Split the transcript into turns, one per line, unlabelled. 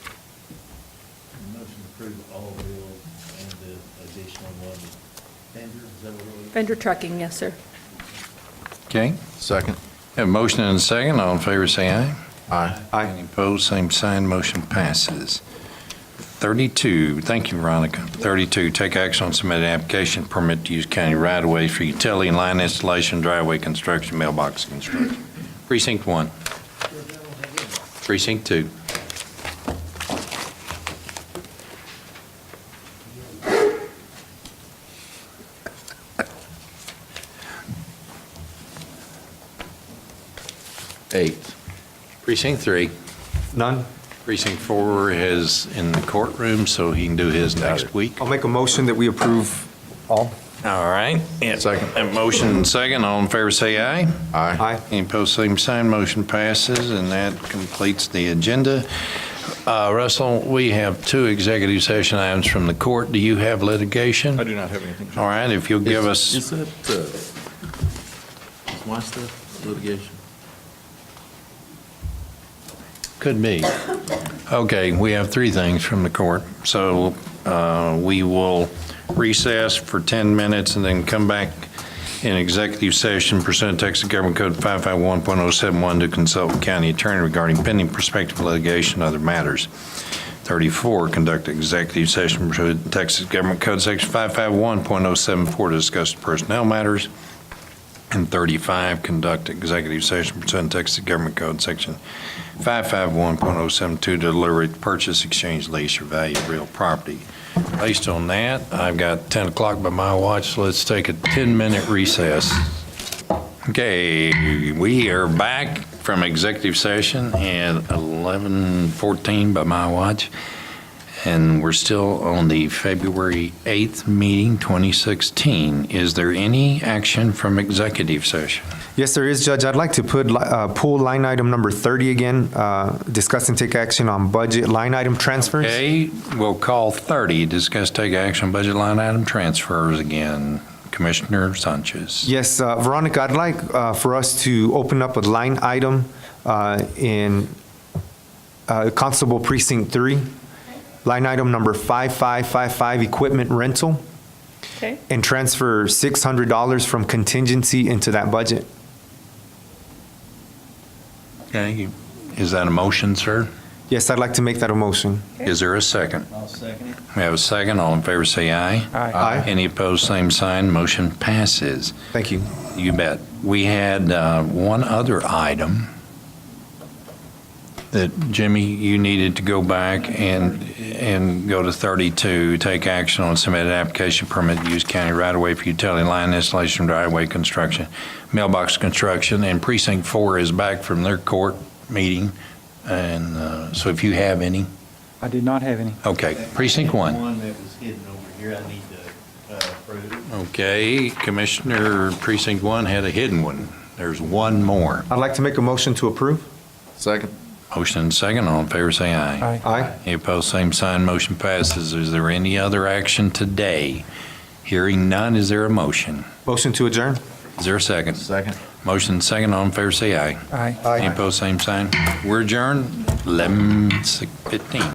approve all bills and the additional one. Andrew, is that what it was?
Vendor trucking, yes, sir.
Okay,
Second.
have a motion and a second. All in favor, say aye.
Aye.
Any opposed, same sign, motion passes. 32, thank you, Veronica. 32, take action on submitted application permit to use county right-of-way for utility and line installation, driveway construction, mailbox construction. Precinct 1. Precinct 2.
Eight.
Precinct 3.
None?
Precinct 4 is in the courtroom, so he can do his next week.
I'll make a motion that we approve all.
All right.
Second.
A motion and second. All in favor, say aye.
Aye.
Aye.
Any opposed, same sign, motion passes, and that completes the agenda. Uh, Russell, we have two executive session items from the court. Do you have litigation?
I do not have anything.
All right, if you'll give us,
Is that, uh, is my stuff litigation?
could be. Okay, we have three things from the court, so uh, we will recess for 10 minutes and then come back in executive session pursuant to Texas Government Code 551.071 to consult with county attorney regarding pending prospective litigation and other matters. 34, conduct executive session pursuant to Texas Government Code Section 551.074 to discuss personnel matters. And 35, conduct executive session pursuant to Texas Government Code Section 551.072 to deliberate purchase, exchange, lease, or value of real property. Based on that, I've got 10 o'clock by my watch, so let's take a 10-minute recess. Okay, we are back from executive session at 11:14 by my watch, and we're still on the February 8th meeting, 2016. Is there any action from executive session?
Yes, there is, Judge. I'd like to put, li- uh, pull line item number 30 again, uh, discuss and take action on budget line item transfers.
Okay, we'll call 30, discuss take action budget line item transfers again. Commissioner Sanchez.
Yes, uh, Veronica, I'd like uh, for us to open up a line item uh, in uh, Constable Precinct 3, line item number 5555, equipment rental,
Okay.
and transfer $600 from contingency into that budget.
Okay, is that a motion, sir?
Yes, I'd like to make that a motion.
Is there a second?
I'll second it.
We have a second. All in favor, say aye.
Aye.
Any opposed, same sign. Motion passes.
Thank you.
You bet. We had uh, one other item that, Jimmy, you needed to go back and, and go to 32, take action on submitted application permit to use county right-of-way for utility line installation, driveway construction, mailbox construction, and precinct four is back from their court meeting. And uh, so if you have any,
I did not have any.
okay, precinct one.
One that was hidden over here, I need to uh, approve.
Okay, Commissioner Precinct One had a hidden one. There's one more.
I'd like to make a motion to approve.
Second.
Motion and second, all in favor, say aye.
Aye.
Aye.
Any opposed, same sign, motion passes. Is there any other action today? Hearing none, is there a motion?
Motion to adjourn.
Is there a second?
Second.
Motion and second, all in favor, say aye.
Aye.
Any opposed, same sign. We're adjourned, 11:15.